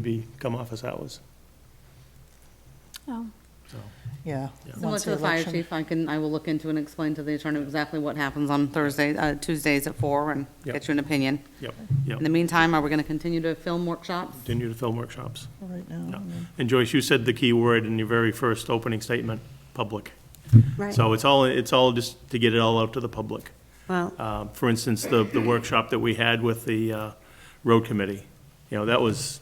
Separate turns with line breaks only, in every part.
be, come office hours,
Oh,
so.
Yeah.
Yeah.
Similar
once
to the fire
election.
chief, I can, I will look into and explain to the attorney exactly what happens on Thursday, uh, Tuesdays at four and
Yep.
get you an opinion.
Yep,
In the
yep.
meantime, are we gonna continue to film workshops?
Continue to film workshops.
Right now. I mean,
Mm-hmm.
And Joyce, you said the key word in your very first opening statement, public.
Right,
So it's all, it's all just to get it all out to the public.
well,
Uh, For instance, the, the workshop that we had with the uh, road committee, you know, that was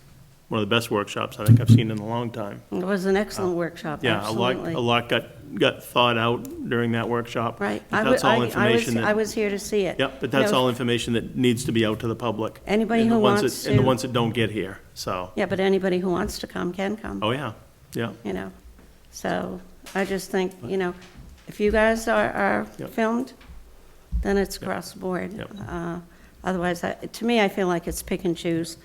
one of the best workshops I think I've seen in a long time.
it was an excellent workshop,
Uh, Yeah, a lot,
absolutely.
a lot got, got thought out during that workshop.
Right.
But
I wa-
that's all
I- I
information
was- I
that,
was here to see it.
yep, but
And I
that's
was-
all information that needs to be out to the public.
Anybody
And the
who
ones
wants
that- And the
to-
ones that don't get here, so,
Yeah, but anybody who wants to come can come,
oh, yeah, yeah.
you know? So I just think, you know, if you guys are, are
Yep.
filmed, then it's across the board.
Yep.
Uh, Otherwise, I- to me, I feel like it's pick and choose.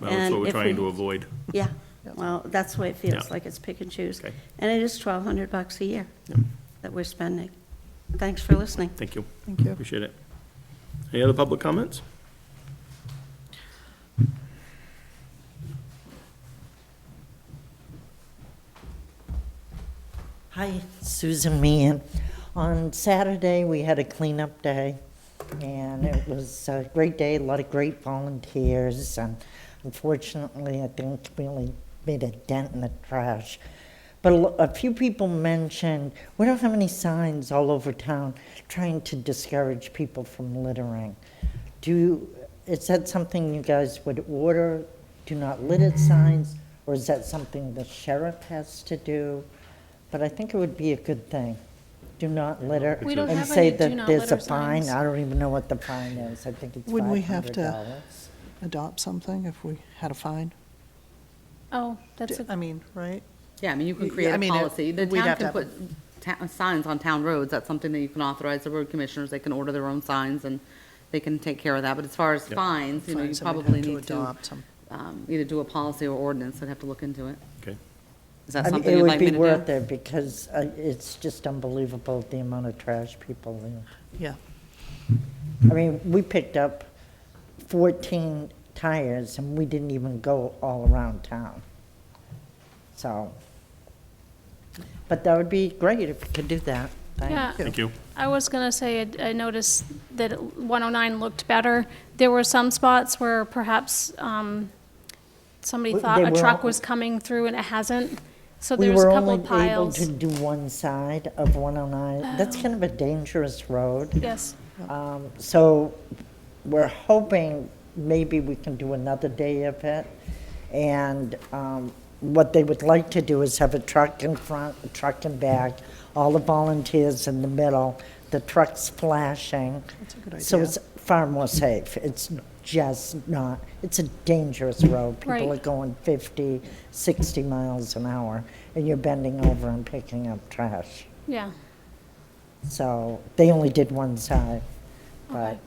Well, That's
And
what we're
if we-
trying to avoid.
Yeah, well, that's the way it feels,
Yeah.
like it's pick and choose.
Okay.
And it is 1,200 bucks a year
Yep.
that we're spending. Thanks for listening.
Thank you,
Thank you.
appreciate it. Any other public comments?
Hi, Susan Meehan. On Saturday, we had a cleanup day, and it was a great day, a lot of great volunteers, and unfortunately, I think we only made a dent in the trash. But a lo- a few people mentioned, we don't have any signs all over town trying to discourage people from littering. Do, you- is that something you guys would order, do not litter signs, or is that something the sheriff has to do? But I think it would be a good thing. Do not litter.
We don't
have any do
And say that
not
there's
litter
a fine,
signs.
I don't even know what the fine is, I think it's
Would we have to-
$500.
adopt something if we had a fine?
oh, that's a,
I mean, right?
Yeah, I mean, you can
Yeah,
create
I
a
mean, it-
policy. The
we'd
town
have to
can put
have
ta- signs on town roads. That's something that you can authorize the road commissioners. They can order their own signs and they can take care of that. But as far as fines, you know, you
Fine, so we'd
probably
have
need to
adopt some-
um, either do a policy or ordinance. I'd have to look into it.
Okay.
Is
I
that
mean,
something you'd like me
It would be
to
worth
do?
it, because uh, it's just unbelievable the amount of trash people leave.
Yeah,
I mean, we picked up 14 tires, and we didn't even go all around town. So, but that would be great if we could do that. Thanks.
yeah.
Thank you.
I was gonna say, I I noticed that 109 looked better. There were some spots where perhaps um, somebody
We-
thought
they
a
were
truck
all-
was coming through and it hasn't. So
We
there's a
were
couple
only
of
able to
piles.
do one side of 109. That's kind of a dangerous road.
Yes,
Um, So we're hoping maybe we can do another day of it. And um, what they would like to do is have a truck in front, a truck in back, all the volunteers in the middle, the trucks flashing. That's a
good
So
idea.
it's far more safe. It's just not, it's a dangerous road. People
Right.
are going 50, 60 miles an hour, and you're bending over and picking up trash.
yeah.
So they only did one side. But
Okay.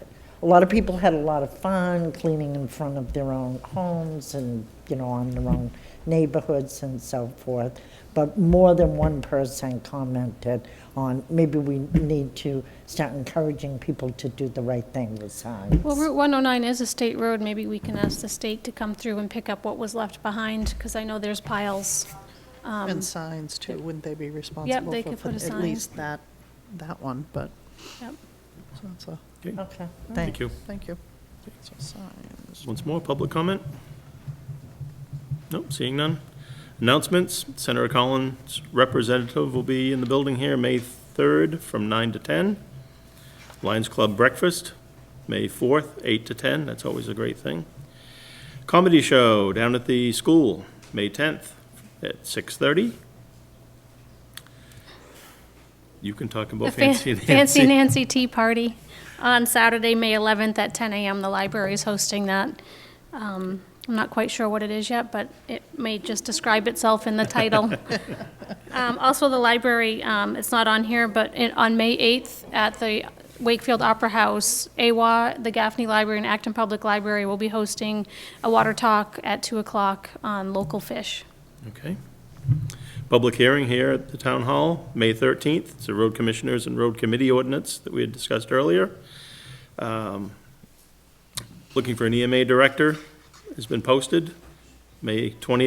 a lot of people had a lot of fun cleaning in front of their own homes and, you know, on their own neighborhoods and so forth. But more than one person commented on, maybe we need to start encouraging people to do the right thing with signs.
Well, Route 109 is a state road. Maybe we can ask the state to come through and pick up what was left behind, because I know there's piles.
and signs too, wouldn't they be responsible
they
for,
could put a
for
sign.
at least that, that one, but,
Yep.
so that's a,
Okay,
Thank
thanks.
you.
thank you. So signs.
Once more, public comment? Nope, seeing none. Announcements, Senator Collins' representative will be in the building here May 3rd from 9 to 10. Lions Club Breakfast, May 4th, 8 to 10, that's always a great thing. Comedy Show down at the school, May 10th at 6:30. You can talk
The
about
fan-
Fancy Nancy.
Fancy Nancy Tea Party on Saturday, May 11th at 10 a.m. The library is hosting that. Um, I'm not quite sure what it is yet, but it may just describe itself in the title. Um, Also, the library, um, it's not on here, but in- on May 8th at the Wakefield Opera House, AWA, the Gaffney Library, and Acton Public Library will be hosting a water talk at 2 o'clock on local fish.
Okay. Public hearing here at the town hall, May 13th. It's a road commissioners and road committee ordinance that we had discussed earlier. E Um, Looking for an EMA director has been posted. May 28th